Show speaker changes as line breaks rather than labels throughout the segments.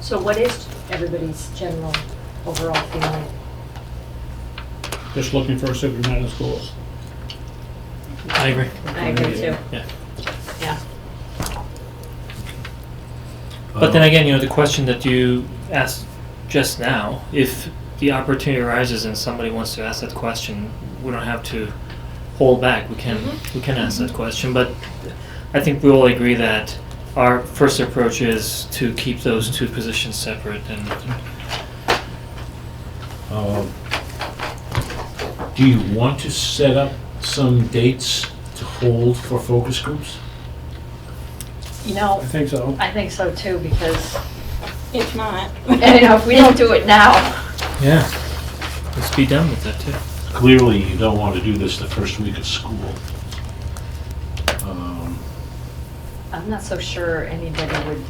So what is everybody's general overall feeling?
Just looking for a superintendent of schools.
I agree.
I agree too.
Yeah.
Yeah.
Oh.
But then again, you know, the question that you asked just now, if the opportunity arises and somebody wants to ask that question, we don't have to hold back. We can
Mm-hmm.
we can ask that question, but I think we all agree that our first approach is to keep those two positions separate and
Uh, Do you want to set up some dates to hold for focus groups?
You
I
know,
think so.
I think so too, because,
If not.
and you know, if we don't do it now,
yeah, let's be done with that too.
Clearly, you don't want to do this the first week of school. Um,
I'm not so sure anybody would,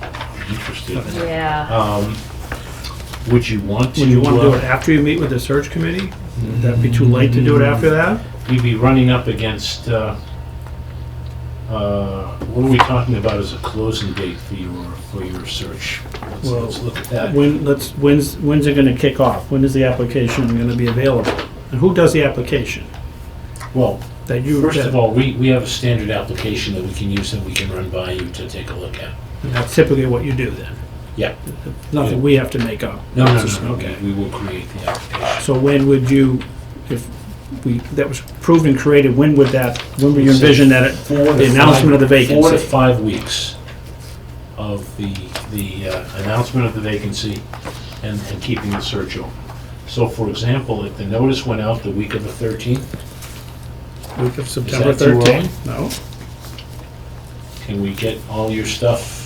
Interested.
yeah.
Um, Would you want to?
Would you want to do
uh,
it after you meet with the search committee? Would that be too late to do
Mm.
it after that?
We'd be running up against, uh, uh, what are we talking about as a closing date for your, for your search? Let's-
Well,
Let's look at that.
When, let's, when's, when's it gonna kick off? When is the application gonna be available? And who does the application?
Well,
That you,
first of
that-
all, we, we have a standard application that we can use that we can run by you to take a look at.
that's typically what you do then?
Yeah.
Nothing we have to make up?
No, no,
It's just-
no, no,
Okay.
we- we will create the application.
So when would you, if we, that was approved and created, when would that, when would you envision that it,
Four to
the announcement of the
five- Four to
vacancy?
five weeks of the, the uh, announcement of the vacancy and, and keeping the search open. So for example, if the notice went out the week of the 13th,
Week of September
too early?
13th? No?
Can we get all your stuff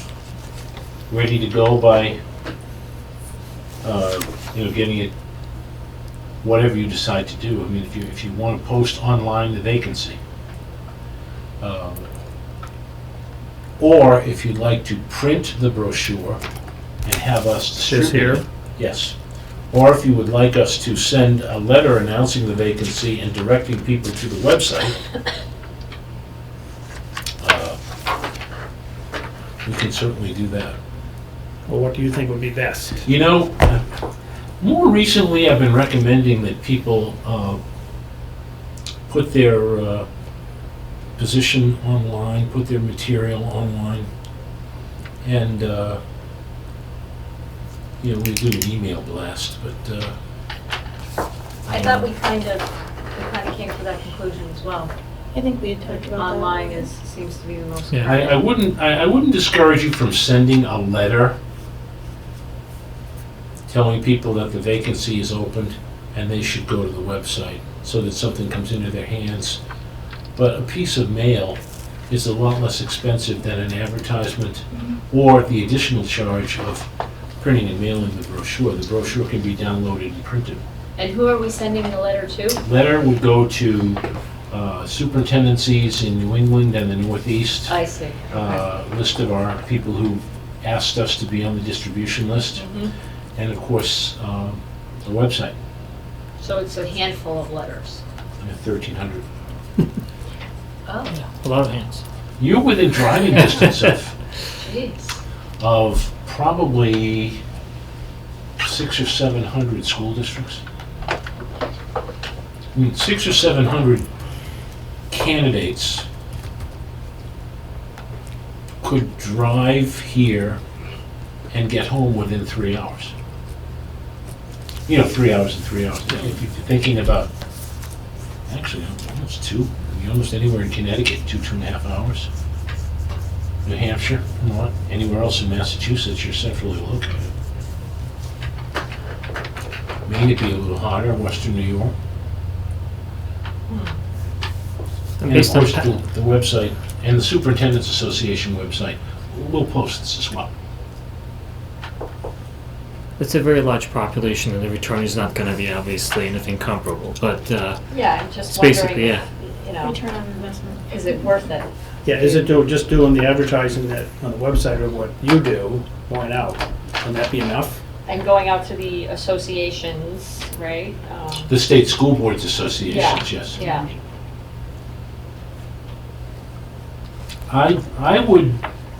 ready to go by, uh, you know, getting it, whatever you decide to do? I mean, if you, if you want to post online the vacancy. um, Or if you'd like to print the brochure and have us
This
distribute
here?
it. Yes. Or if you would like us to send a letter announcing the vacancy and directing people to the website, uh, we can certainly do that.
Well, what do you think would be best?
You know, uh, more recently, I've been recommending that people uh, put their uh, position online, put their material online, and, uh, you know, we do an email blast, but. uh,
I thought we kind of, we kind of came to that conclusion as well.
I think we had talked about that.
Online is, seems to be the most.
Yeah.
I, I wouldn't, I, I wouldn't discourage you from sending a letter telling people that the vacancy is opened and they should go to the website so that something comes into their hands. But a piece of mail is a lot less expensive than an advertisement or the additional charge of printing and mailing the brochure. The brochure can be downloaded and printed.
And who are we sending the letter to?
Letter would go to uh, superintendencies in New England and the Northeast
I see.
uh, list of our people who asked us to be on the distribution list,
Mhm.
and of course, um, the website,
So it's a handful of letters.
you know, 1,300.
Oh,
A lot of hands.
You're within driving distance of,
jeez.
of probably six or 700 school districts. I mean, six or 700 candidates could drive here and get home within three hours. You know, three hours and three hours. If you're thinking about, actually, almost two, You're almost anywhere in Connecticut, two, two and a half hours. New Hampshire, not anywhere else in Massachusetts, you're centrally located. Maine would be a little hotter, western New York.
And
And of
Hmm. based on
course,
pa-
the the website and the Superintendent's Association website, we'll post this as well.
it's a very large population, and the return is not going to be obviously anything comparable. But uh,
Yeah, I'm
it's
just wondering,
basically yeah.
you know,
Return on investment.
is it worth it?
Yeah, is it do- just doing the advertising that, on the website of what you do, going out, can that be enough?
And going out to the associations, right? Um,
The State School Boards Associations, yes.
Yeah,
I, I would